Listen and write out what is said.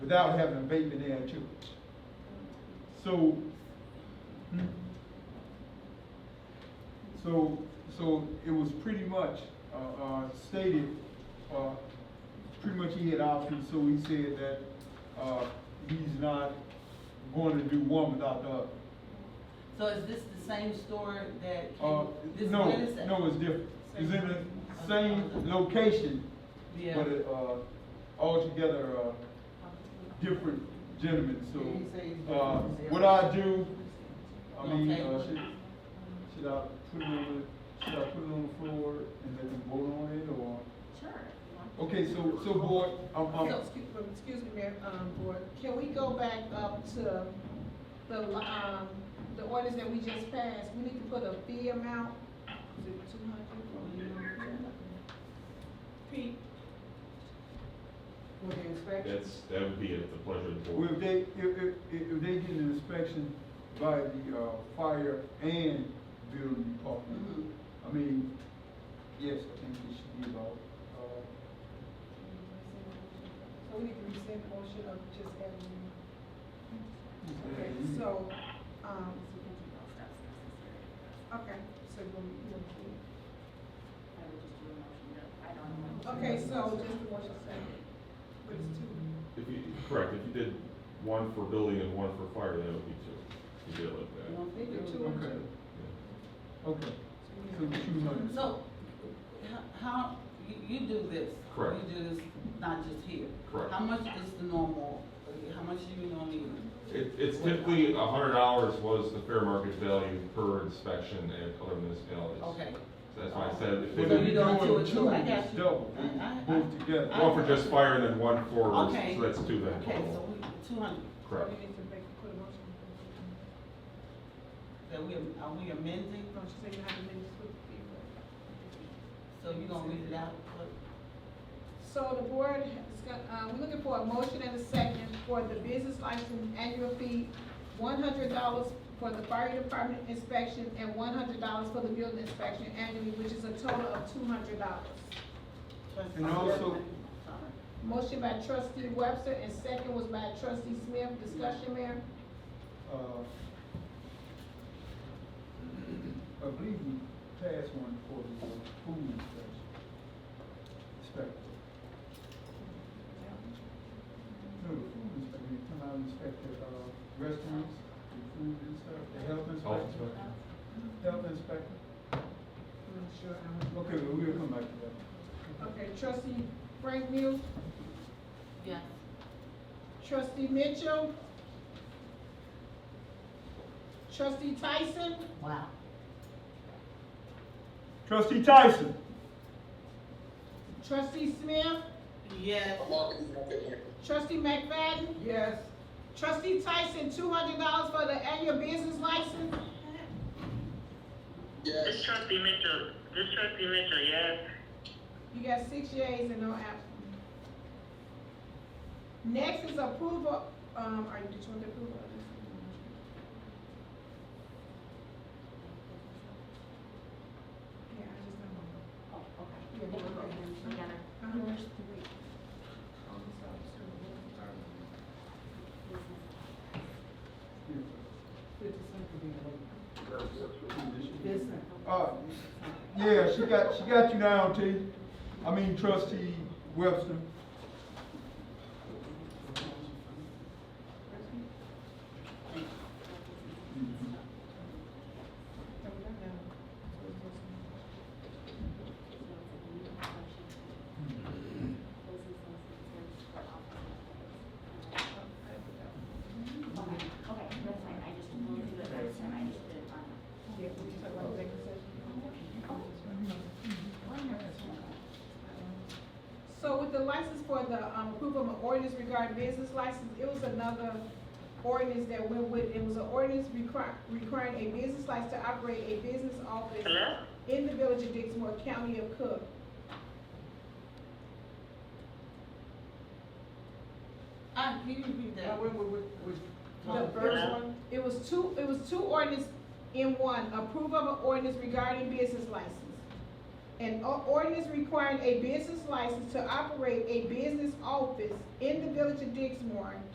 without having a baby there in church. So, hmm. so, so it was pretty much, uh, uh, stated, uh, pretty much he had options, so he said that, uh, he's not going to do one without the other. So is this the same store that? Uh, this no, Wednesday? no, it's different. It's in the same location, Yeah. but, it, uh, altogether, uh, different gentlemen, He said he's so, uh, different. what I do, I mean, Okay. uh, should, should I put it on, the- should I put it on the floor and let them vote on it, or? Sure. Okay, so, so board, I'm, I'm, So, excuse, excuse me, Mayor, um, Board, can we go back up to the, um, the ordinance that we just passed? We need to put a fee amount, is it two Mm-hmm. hundred? Pete? For the inspection? That's, that would be at the pleasure of the well, board. if they, if, if, if they get an inspection by the, uh, fire and building department, Mhm. I mean, yes, I think it should be about, uh, So we need to rescind motion of just adding, okay, Okay, so- so, um, okay, so we'll, we'll. Okay, so just the motion second. But it's two. If you, correct, if you did one for building and one for fire, that would be two. You did it like that. Well, they do. Two and Okay, two. okay, so two hundred. So, h- how, you, you do this? Correct. You do this, not just here? Correct. How much is the normal, uh, how much do you normally? It, it's typically a hundred dollars was the fair market value per inspection at other municipalities. Okay, So that's why I said So if they you did don't do it too, I got It's you. double, I- I- both together. I- one for just fire and then one for, Okay. so that's two then. okay, so total. we, two hundred, So Correct. we need to make, put a motion. that we, am- are we amending, No, she said you have to make this with the people. so you gonna read it out? What- So the board is gonna, uh, we're looking for a motion and a second for the business license annual fee, one hundred dollars for the fire department inspection and one hundred dollars for the building inspection annually, which is a total of two hundred dollars. And also- Sorry. Motion by trustee Webster and second was by trustee Smith. Discussion, Mayor? Uh, I believe we passed one for the food inspection. Inspector. No, the food inspector, you come out and inspect the, uh, restaurants, the food inspector, the health Health inspector. inspector. Health inspector, I'm not sure. okay, well, we'll come back to that. Okay, trustee Frank Muse, Yes. trustee Mitchell, trustee Tyson, Wow. Trustee Tyson. trustee Smith, Yes. trustee McFadden, Yes. trustee Tyson, two hundred dollars for the annual business license, This trustee Mitchell, this trustee Mitchell, yes. you got six yeas and no absent. Next is approval, um, are you, did you want to approve of this? Yeah, I just don't know. Yeah, okay. Uh-huh. Uh, yeah, she got, she got you now, T. I mean trustee Webster. Okay, that's fine, I just will do it first time, I just did it on. Yeah, we just have one executive session. So with the license for the, um, approval of an ordinance regarding business license, it was another ordinance that went with, it was an ordinance require, requiring a business license to operate a business office Hello? in the village of Dixmoor, county of Cook. Ah, can you read that? The first one, it was two, it was two ordinance in one, approval of an ordinance regarding business license. An o- ordinance requiring a business license to operate a business office in the village of Dixmoor